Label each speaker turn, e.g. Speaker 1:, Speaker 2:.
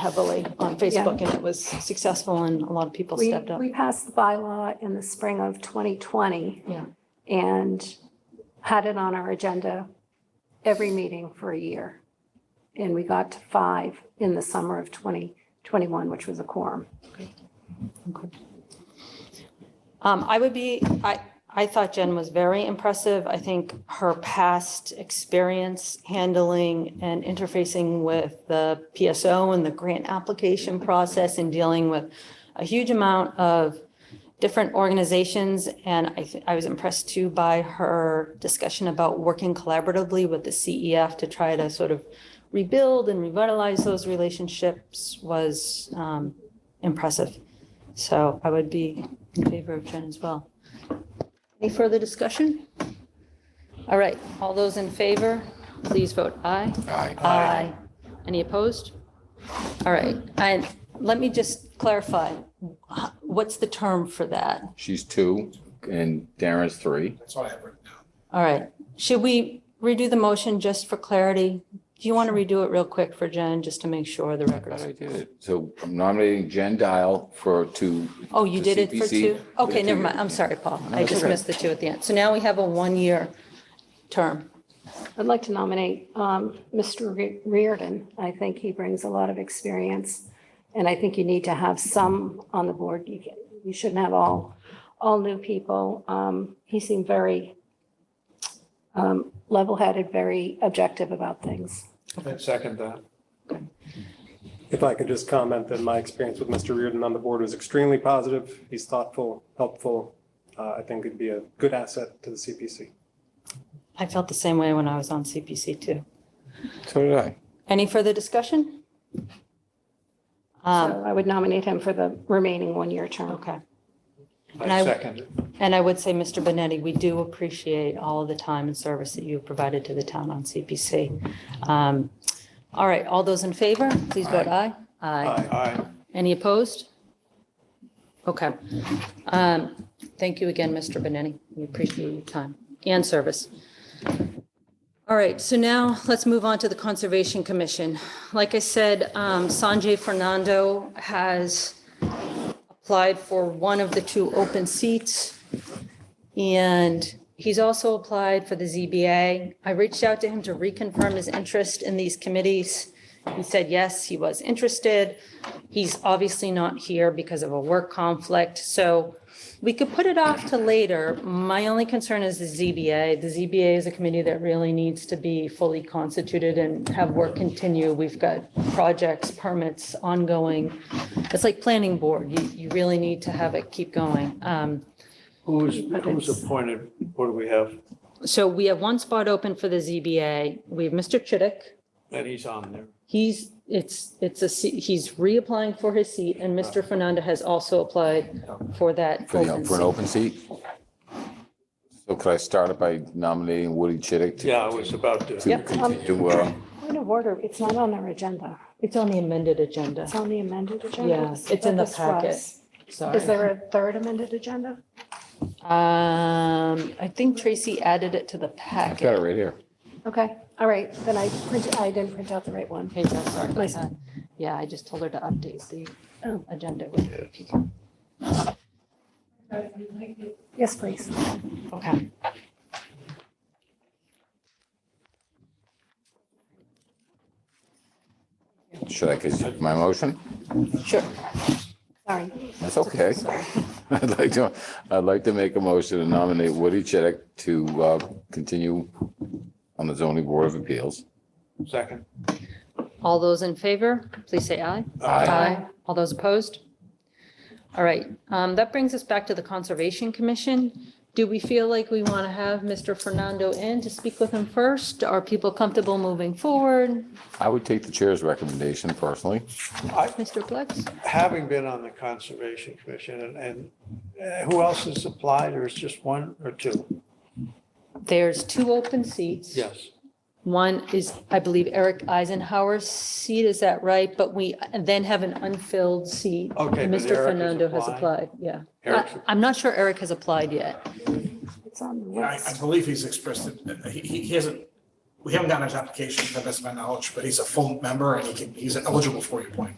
Speaker 1: heavily on Facebook and it was successful and a lot of people
Speaker 2: We,
Speaker 1: stepped up.
Speaker 2: we passed the bylaw in the spring of 2020
Speaker 1: Yeah,
Speaker 2: and had it on our agenda every meeting for a year. And we got to five in the summer of 2021, which was a quorum.
Speaker 1: okay. Um, I would be, I, I thought Jen was very impressive. I think her past experience handling and interfacing with the PSO and the grant application process and dealing with a huge amount of different organizations. And I, thi- I was impressed too by her discussion about working collaboratively with the CEF to try to sort of rebuild and revitalize those relationships was um, impressive. So I would be in favor of Jen as well. Any further discussion? All right, all those in favor, please vote aye.
Speaker 3: Aye.
Speaker 1: Aye. Any opposed? All right, and let me just clarify, h- what's the term for that?
Speaker 3: She's two and Darren's three.
Speaker 4: That's what I have written down.
Speaker 1: All right, should we redo the motion just for clarity? Do you want to redo it real quick for Jen, just to make sure the
Speaker 3: Glad I
Speaker 1: records?
Speaker 3: did it. So I'm nominating Jen Dial for two.
Speaker 1: Oh, you
Speaker 3: to
Speaker 1: did it for
Speaker 3: CPC
Speaker 1: two?
Speaker 3: for the
Speaker 1: Okay, never
Speaker 3: two-year-
Speaker 1: mind, I'm sorry, Paul, I
Speaker 3: that's
Speaker 1: just
Speaker 3: okay.
Speaker 1: missed the two at the end. So now we have a one-year term.
Speaker 2: I'd like to nominate um, Mr. Re- Reardon. I think he brings a lot of experience. And I think you need to have some on the board. You can- you shouldn't have all, all new people. Um, He seemed very um, level-headed, very objective about things.
Speaker 5: I second that.
Speaker 6: If I could just comment that my experience with Mr. Reardon on the board was extremely positive. He's thoughtful, helpful. Uh, I think it'd be a good asset to the CPC.
Speaker 1: I felt the same way when I was on CPC too.
Speaker 3: So did I.
Speaker 1: Any further discussion? Um,
Speaker 2: So I would nominate him for the remaining one-year term.
Speaker 1: Okay. And I-
Speaker 5: I second it.
Speaker 1: And I would say, Mr. Benetti, we do appreciate all of the time and service that you've provided to the town on CPC. Um, All right, all those in favor, please vote aye. Aye.
Speaker 5: Aye.
Speaker 1: Any opposed? Okay. Um, Thank you again, Mr. Benetti. We appreciate your time and service. All right, so now let's move on to the Conservation Commission. Like I said, um, Sanjay Fernando has applied for one of the two open seats. And he's also applied for the ZBA. I reached out to him to reconfirm his interest in these committees. He said, yes, he was interested. He's obviously not here because of a work conflict, so we could put it off to later. My only concern is the ZBA. The ZBA is a committee that really needs to be fully constituted and have work continue. We've got projects, permits ongoing. It's like planning board. You, you really need to have it keep going. Um,
Speaker 5: Who's, who's appointed? What do we have?
Speaker 1: So we have one spot open for the ZBA. We have Mr. Chidick.
Speaker 5: And he's on there.
Speaker 1: He's, it's, it's a, se- he's reapplying for his seat, and Mr. Fernanda has also applied for that
Speaker 3: For the,
Speaker 1: open
Speaker 3: for an
Speaker 1: seat.
Speaker 3: open seat? So could I start it by nominating Woody Chidick? to-
Speaker 5: Yeah, I was about to.
Speaker 3: To
Speaker 1: Yep.
Speaker 3: continue, uh,
Speaker 2: Point of order, it's not on our agenda.
Speaker 1: It's on the amended agenda.
Speaker 2: It's on the amended agenda.
Speaker 1: Yes, it's in the
Speaker 2: That's right.
Speaker 1: packet. Sorry.
Speaker 2: Is there a third amended agenda?
Speaker 1: Um, I think Tracy added it to the
Speaker 3: I've got it
Speaker 1: packet.
Speaker 3: right here.
Speaker 2: Okay, all right, then I printed, I didn't print out the right one.
Speaker 1: Hey, Joe, sorry about
Speaker 2: Nice.
Speaker 1: that. Yeah, I just told her to update the
Speaker 2: Oh.
Speaker 1: agenda.
Speaker 2: Yes, please.
Speaker 1: Okay.
Speaker 3: Should I consider my motion?
Speaker 1: Sure.
Speaker 2: Sorry.
Speaker 3: That's okay. I'd like to, I'd like to make a motion to nominate Woody Chidick to uh, continue on the zoning board of appeals.
Speaker 5: Second. Uh,
Speaker 1: All those in favor, please say aye.
Speaker 3: Aye.
Speaker 1: All those opposed? All right, um, that brings us back to the Conservation Commission. Do we feel like we want to have Mr. Fernando in to speak with him first? Are people comfortable moving forward?
Speaker 3: I would take the chair's recommendation personally.
Speaker 1: Mr. Plex?
Speaker 5: Having been on the Conservation Commission and, and uh, who else has applied or is just one or two?
Speaker 1: There's two open seats.
Speaker 5: Yes.
Speaker 1: One is, I believe, Eric Eisenhower's seat, is that right? But we then have an unfilled seat.
Speaker 5: Okay, but
Speaker 1: Mr.
Speaker 5: Eric has
Speaker 1: Fernando has
Speaker 5: applied.
Speaker 1: applied, yeah.
Speaker 5: Eric's-
Speaker 1: I- I'm not sure Eric has applied yet.
Speaker 2: It's on the
Speaker 4: I, I
Speaker 2: list.
Speaker 4: believe he's expressed it, he, he hasn't we haven't gotten his application, to the best of my knowledge, but he's a full member and he can, he's eligible for your point.